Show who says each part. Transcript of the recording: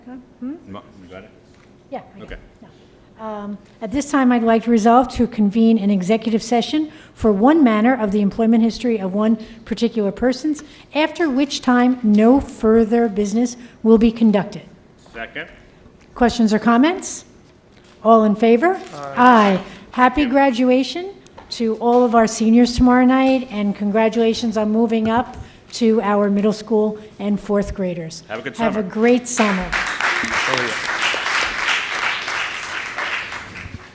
Speaker 1: Mo- You got it?
Speaker 2: Yeah. I know.
Speaker 1: Okay.
Speaker 2: Um, At this time, I'd like to resolve to convene an executive session for one manner of the employment history of one particular persons, after which time no further business will be conducted.
Speaker 1: Second?
Speaker 2: Questions or comments? All in favor? Aye. Happy graduation to all of our seniors tomorrow night, and congratulations on moving up to our middle school and fourth graders.
Speaker 1: Have a good
Speaker 2: Have a
Speaker 1: summer.
Speaker 2: great summer.
Speaker 1: Oh, yeah.